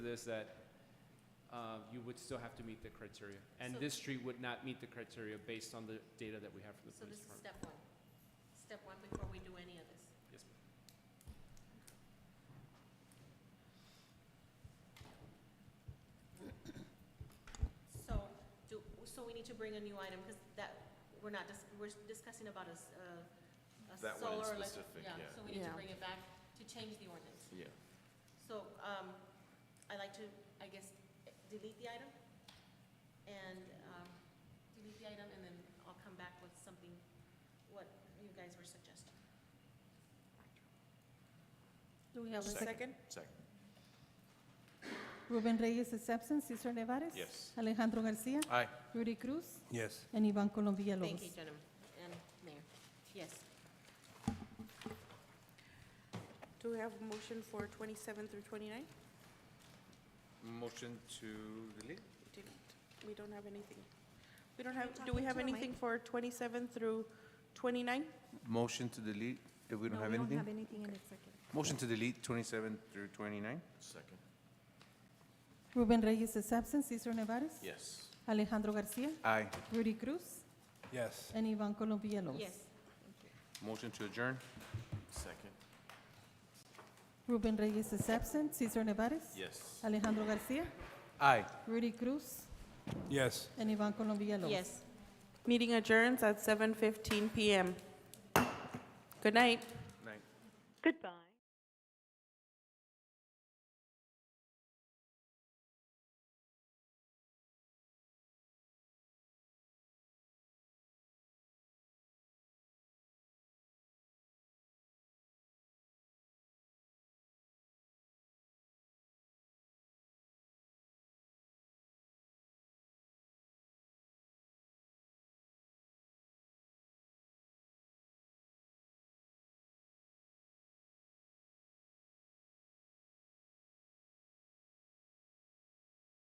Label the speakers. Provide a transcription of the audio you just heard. Speaker 1: this, that uh, you would still have to meet the criteria. And
Speaker 2: So-
Speaker 1: this street would not meet the criteria based on the data that we have from the
Speaker 2: So
Speaker 1: police
Speaker 2: this is
Speaker 1: department.
Speaker 2: step one. Step one before we do any of this.
Speaker 1: Yes, ma'am.
Speaker 2: So, do, so we need to bring a new item, because that, we're not, dis- we're discussing about a, s- a- a solar.
Speaker 3: That one in
Speaker 2: elec-
Speaker 3: specific, yeah.
Speaker 2: so we need to
Speaker 4: Yeah.
Speaker 2: bring it back to change the ordinance.
Speaker 3: Yeah.
Speaker 2: So, um, I like to, I guess, delete the item, and, um, delete the item, and then I'll come back with something, what you guys were suggesting.
Speaker 5: Do we have a
Speaker 3: Second.
Speaker 5: second?
Speaker 3: Second.
Speaker 5: Ruben Reyes is absent. Cesar Nevares.
Speaker 3: Yes.
Speaker 5: Alejandro Garcia.
Speaker 3: Aye.
Speaker 5: Rudy Cruz.
Speaker 6: Yes.
Speaker 5: And Ivan Colom Villalobos.
Speaker 2: Thank you, gentlemen, and Mayor. Yes.
Speaker 4: Do we have a motion for 27 through 29?
Speaker 3: Motion to delete?
Speaker 4: Delete. We don't have anything. We don't have, do we have anything for 27 through 29?
Speaker 3: Motion to delete, if we don't have anything? Motion to delete twenty-seven through twenty-nine? Second.
Speaker 5: Ruben Reyes is absent. Cesar Nevares.
Speaker 3: Yes.
Speaker 5: Alejandro Garcia.
Speaker 3: Aye.
Speaker 5: Rudy Cruz.
Speaker 6: Yes.
Speaker 5: And Ivan Colom Villalobos.
Speaker 2: Yes.
Speaker 3: Motion to adjourn? Second.
Speaker 5: Ruben Reyes is absent. Cesar Nevares.
Speaker 3: Yes.
Speaker 5: Alejandro Garcia.
Speaker 3: Aye.
Speaker 5: Rudy Cruz.
Speaker 6: Yes.
Speaker 5: And Ivan Colom Villalobos.
Speaker 2: Yes.
Speaker 4: Meeting adjourns at 7:15 PM. Good night.
Speaker 3: Night.
Speaker 7: Goodbye.